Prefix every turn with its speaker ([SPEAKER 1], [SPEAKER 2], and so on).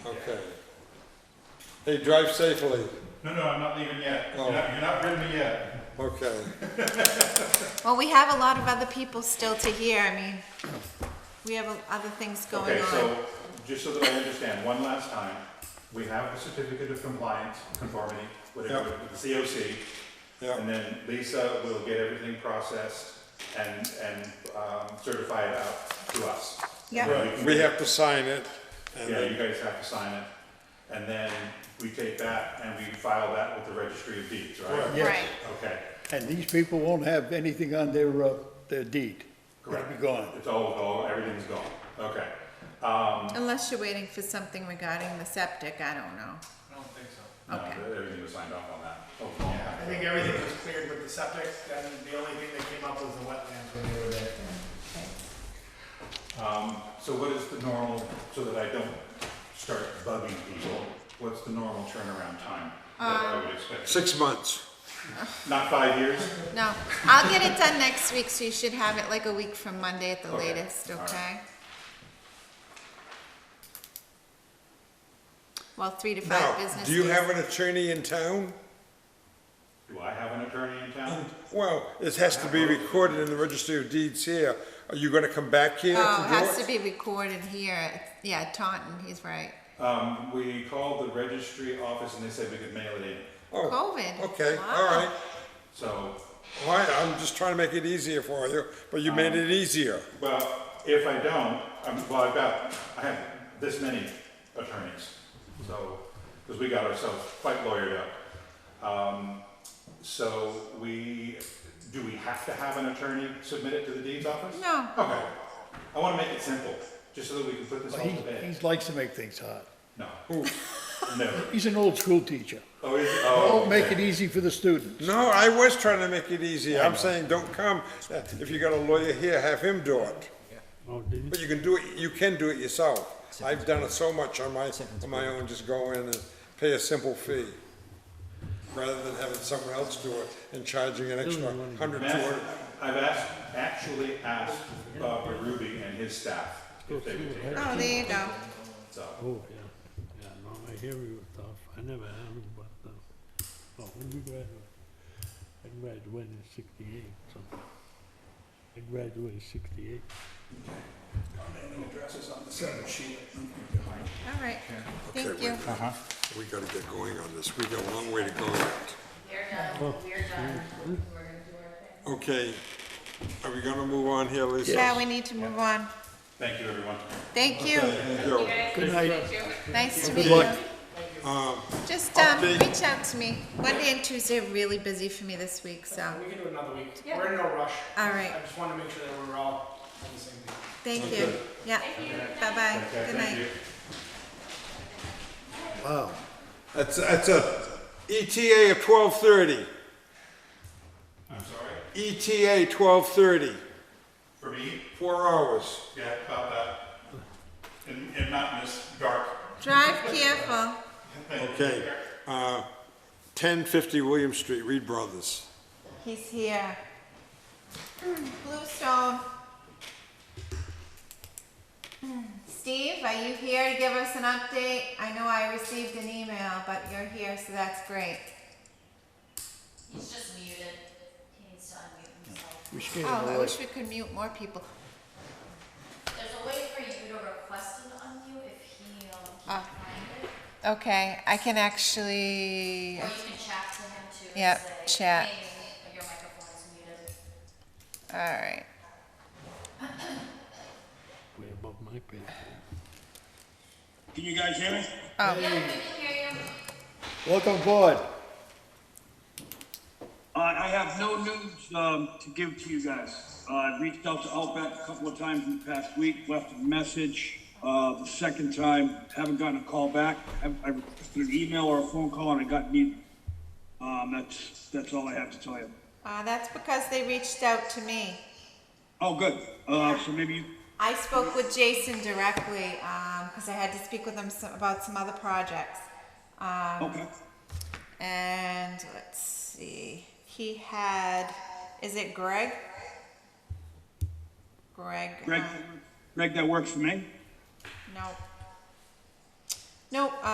[SPEAKER 1] Okay. Hey, drive safely.
[SPEAKER 2] No, no, I'm not leaving yet.
[SPEAKER 1] Oh.
[SPEAKER 2] You're not, you're not rid of me yet.
[SPEAKER 1] Okay.
[SPEAKER 3] Well, we have a lot of other people still to hear, I mean, we have o- other things going
[SPEAKER 2] Okay,
[SPEAKER 3] on.
[SPEAKER 2] so, just so that I understand, one last time, we have a certificate of compliance, conformity, whatever,
[SPEAKER 1] Yep.
[SPEAKER 2] with the COC.
[SPEAKER 1] Yeah,
[SPEAKER 2] And then Lisa will get everything processed and, and um, certify it out to us.
[SPEAKER 3] Yeah.
[SPEAKER 2] And then
[SPEAKER 1] we have to sign it. and
[SPEAKER 2] Yeah,
[SPEAKER 1] then-
[SPEAKER 2] you guys have to sign it. And then we take that and we file that with the registry of deeds, right?
[SPEAKER 4] Yes.
[SPEAKER 3] Right,
[SPEAKER 2] Okay,
[SPEAKER 4] And these people won't have anything on their, uh, their deed.
[SPEAKER 2] correct.
[SPEAKER 4] It'll be gone.
[SPEAKER 2] It's all, all, everything's gone. Okay. Um,
[SPEAKER 3] unless you're waiting for something regarding the septic, I don't know.
[SPEAKER 5] I don't think so.
[SPEAKER 2] no,
[SPEAKER 3] Okay.
[SPEAKER 2] everything was signed off on that.
[SPEAKER 5] Yeah, Oh, I think everything was cleared with the septic, then the only thing that came up was the wetlands when they were there.
[SPEAKER 2] Um, so what is the normal, so that I don't start bugging people, what's the normal turnaround time that
[SPEAKER 5] Uh,
[SPEAKER 2] I would expect?
[SPEAKER 1] Six months.
[SPEAKER 2] Not five years?
[SPEAKER 3] No, I'll get it done next week, so you should have it like a week from Monday at the
[SPEAKER 2] Okay,
[SPEAKER 3] latest,
[SPEAKER 2] all right.
[SPEAKER 3] okay? Well, three to five
[SPEAKER 1] Now,
[SPEAKER 3] business days.
[SPEAKER 1] do you have an attorney in town?
[SPEAKER 2] Do I have an attorney in town?
[SPEAKER 1] Well, it has to be recorded in the registry of deeds here. Are you gonna come back here to do it?
[SPEAKER 3] Oh, it has to be recorded here, It's- yeah, Taunton, he's right.
[SPEAKER 2] Um, we called the registry office and they said we could mail it in.
[SPEAKER 1] Oh,
[SPEAKER 3] COVID.
[SPEAKER 1] Okay, all
[SPEAKER 3] Wow.
[SPEAKER 1] right.
[SPEAKER 2] So,
[SPEAKER 1] All right, I'm just trying to make it easier for you, but you
[SPEAKER 3] Oh.
[SPEAKER 1] made it easier.
[SPEAKER 2] well, if I don't, I'm, well, I've got, I have this many attorneys. So, because we got ourselves quite lawyered up. Um, so we, do we have to have an attorney submit it to the deeds office?
[SPEAKER 3] No, Oh,
[SPEAKER 2] Okay. I want to make it simple, just so that we can put this
[SPEAKER 4] But
[SPEAKER 2] all
[SPEAKER 4] he,
[SPEAKER 2] to
[SPEAKER 4] he
[SPEAKER 2] bed.
[SPEAKER 4] likes to make things hard.
[SPEAKER 2] No. Never.
[SPEAKER 4] He's an old school teacher.
[SPEAKER 2] Oh, is it?
[SPEAKER 4] Don't
[SPEAKER 2] Oh,
[SPEAKER 4] make it easy for the students.
[SPEAKER 1] No, I was trying to make it easy. I'm saying, don't come. Uh, If you got a lawyer here, have him do it. But you can do it, you can do it yourself. I've done it so much on my, on my own, just go in and pay a simple fee. Rather than having someone else do it and charging an extra hundred, two
[SPEAKER 2] I've asked-
[SPEAKER 1] hundred.
[SPEAKER 2] I've asked, actually asked Bob Ruby and his staff if they would take it,
[SPEAKER 3] oh, there you go.
[SPEAKER 2] so.
[SPEAKER 6] Oh, yeah, yeah, no, I hear you with stuff, I never have, but, uh, oh, when you graduate, I graduated in sixty-eight, so, I graduated in sixty-eight.
[SPEAKER 3] All right, thank you.
[SPEAKER 1] We gotta get going on this. We got a long way to go yet.
[SPEAKER 7] They're done, we're done, we're gonna do our
[SPEAKER 1] Okay,
[SPEAKER 7] thing.
[SPEAKER 1] are we gonna move on here, Lisa?
[SPEAKER 3] Yeah, we need to move on.
[SPEAKER 2] Thank you, everyone.
[SPEAKER 3] Thank you,
[SPEAKER 1] Go.
[SPEAKER 4] Good night.
[SPEAKER 3] nice to meet you.
[SPEAKER 4] luck.
[SPEAKER 3] Just, um,
[SPEAKER 1] Update.
[SPEAKER 3] reach out to me. Monday and Tuesday are really busy for me this week, so,
[SPEAKER 5] We can do another week, we're in no rush.
[SPEAKER 3] All right.
[SPEAKER 5] I just wanna make sure that we're all on the same page.
[SPEAKER 3] thank you. Yeah, bye-bye,
[SPEAKER 2] Okay,
[SPEAKER 3] good
[SPEAKER 2] thank
[SPEAKER 3] night.
[SPEAKER 2] you.
[SPEAKER 4] Wow.
[SPEAKER 1] That's, that's a E ETA of twelve thirty.
[SPEAKER 2] I'm sorry,
[SPEAKER 1] ETA twelve thirty.
[SPEAKER 2] for me,
[SPEAKER 1] Four hours.
[SPEAKER 2] yeah, about that, and, and not in this dark.
[SPEAKER 3] Drive careful.
[SPEAKER 1] Okay, uh, ten fifty William Street, Reed Brothers.
[SPEAKER 3] He's here. Bluestone. Steve, are you here to give us an update? I know I received an email, but you're here, so that's great.
[SPEAKER 7] He's just muted, he needs to unmute himself.
[SPEAKER 4] We scared
[SPEAKER 3] Oh, I
[SPEAKER 4] away.
[SPEAKER 3] wish we could mute more people.
[SPEAKER 7] There's a way for you to request an unmute if he, um,
[SPEAKER 3] Ah.
[SPEAKER 7] can't find it,
[SPEAKER 3] Okay, I can actually,
[SPEAKER 7] or you can chat to him too and
[SPEAKER 3] Yep,
[SPEAKER 7] say,
[SPEAKER 3] chat.
[SPEAKER 7] "Hey, your microphone is muted.
[SPEAKER 3] all right.
[SPEAKER 6] Way above my pay grade.
[SPEAKER 8] Can you guys hear me?
[SPEAKER 7] Yeah, we can hear you.
[SPEAKER 4] Welcome aboard.
[SPEAKER 8] Uh, I have no news um, to give to you guys. Uh, I reached out to Outback a couple of times in the past week, left a message. Uh, the second time, haven't gotten a call back. I, I requested an email or a phone call, and I got neither. Um, that's that's all I have to tell you.
[SPEAKER 3] Uh, that's because they reached out to me.
[SPEAKER 8] Oh, good. Uh, so maybe you
[SPEAKER 3] I spoke with Jason directly, um, cause I had to speak with him some, about some other projects. Um,
[SPEAKER 8] okay.
[SPEAKER 3] And let's see, he had, is it Greg? Greg.
[SPEAKER 8] Greg,
[SPEAKER 3] um, uh,
[SPEAKER 8] Greg, that works for me.
[SPEAKER 3] No. No,